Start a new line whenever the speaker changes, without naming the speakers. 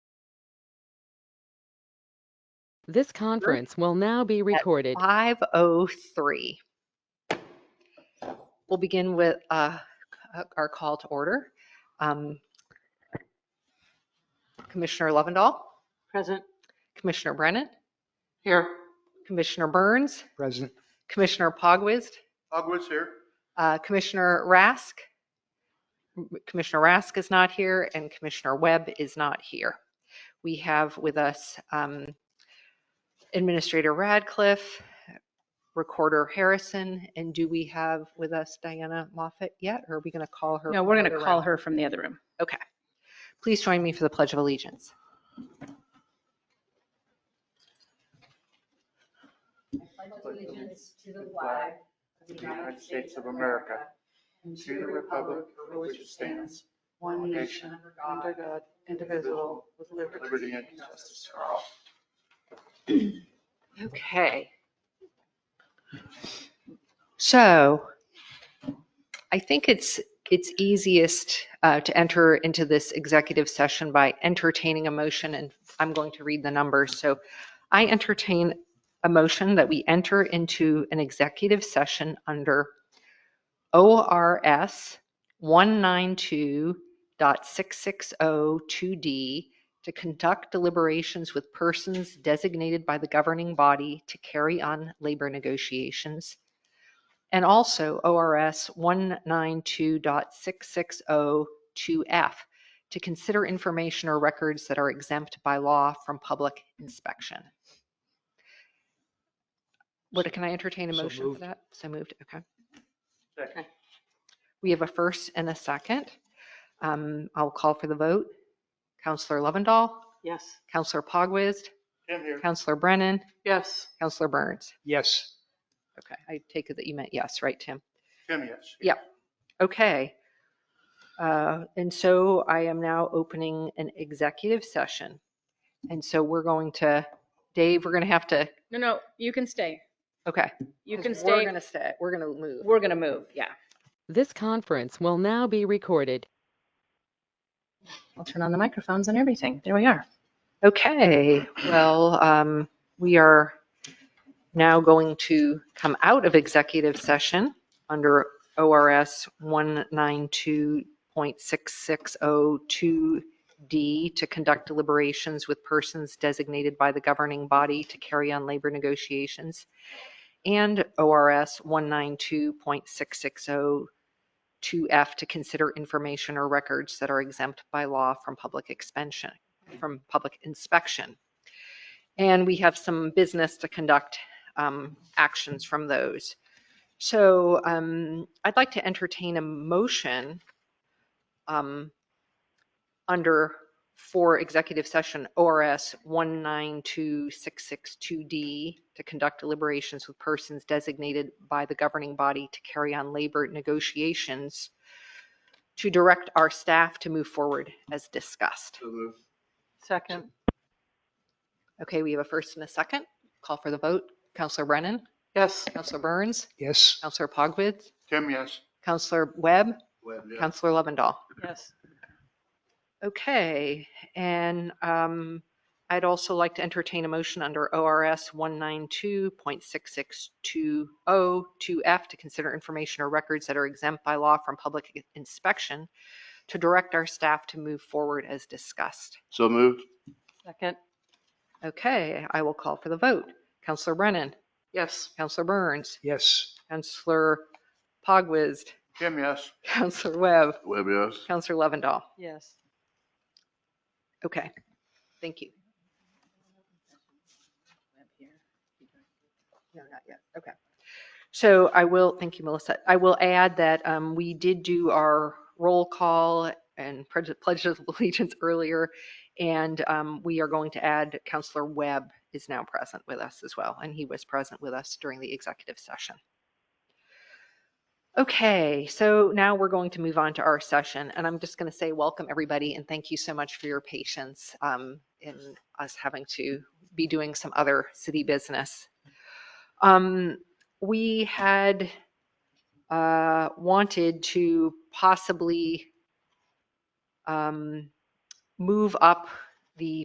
This conference will now be recorded.
5:03. We'll begin with uh, our call to order. Um, Commissioner Lovendall,
Present.
Commissioner Brennan,
Here.
Commissioner Burns,
Present.
Commissioner Pogwizd,
Pogwizd here.
uh, Commissioner Rask. Commissioner Rask is not here and Commissioner Webb is not here. We have with us um, Administrator Radcliffe, Recorder Harrison, and do we have with us Diana Moffett yet? Or are we going to call her?
No,
from
we're
the
going to
other
call
room?
her from the other room.
Please join me for the Pledge of Allegiance.
allegiance to the flag of the United States of America and to the republic for which it stands, one nation, under God, indivisible, with liberty and justice for all.
Okay. So I think it's, it's easiest uh, to enter into this executive session by entertaining a motion, and I'm going to read the numbers. So I entertain a motion that we enter into an executive session under ORS 192.6602D to conduct deliberations with persons designated by the governing body to carry on labor negotiations. And also ORS 192.6602F to consider information or records that are exempt by law from public inspection. What, can I entertain a
So
motion for
moved.
that? So moved, okay.
Second.
We have a first and a second. Um, I'll call for the vote. Counselor Lovendall,
Yes.
Counselor Pogwizd,
Jim here.
Counselor Brennan,
Yes.
Counselor Burns.
Yes.
Okay, I take it that you meant yes, right, Tim?
Jim, yes.
Yeah. Okay. Uh, And so I am now opening an executive session. And so we're going to, Dave, we're going to have to,
No, no, you can stay.
okay.
You
'cause
can
We're
stay.
going to stay, we're going to move.
We're going to move, yeah.
This conference will now be recorded.
I'll turn on the microphones and everything. There we are.
Okay, well, um, we are now going to come out of executive session under ORS 192.6602D to conduct deliberations with persons designated by the governing body to carry on labor negotiations, and ORS 192.6602F to consider information or records that are exempt by law from public expansion from public inspection. And we have some business to conduct um, actions from those. So um, I'd like to entertain a motion um, under for executive session ORS 192662D to conduct deliberations with persons designated by the governing body to carry on labor negotiations to direct our staff to move forward as discussed.
Second.
Okay, we have a first and a second. Call for the vote. Counselor Brennan?
Yes.
Counselor Burns?
Yes.
Counselor Pogwizd?
Jim, yes.
Counselor Webb?
Yes.
Counselor Lovendall?
Yes.
Okay, and um, I'd also like to entertain a motion under ORS 192.66202F to consider information or records that are exempt by law from public inspection to direct our staff to move forward as discussed.
So moved.
Second.
Okay, I will call for the vote. Counselor Brennan?
Yes.
Counselor Burns?
Yes.
Counselor Pogwizd,
Jim, yes.
Counselor Webb,
Webb, yes.
Counselor Lovendall.
Yes.
Okay, thank you. No, not yet. Okay. So I will, thank you, Melissa. I will add that um, we did do our roll call and pledge pledge of allegiance earlier. And um, we are going to add Counselor Webb is now present with us as well, and he was present with us during the executive session. Okay, so now we're going to move on to our session, and I'm just going to say welcome, everybody, and thank you so much for your patience um, in us having to be doing some other city business. Um, We had uh, wanted to possibly um, move up the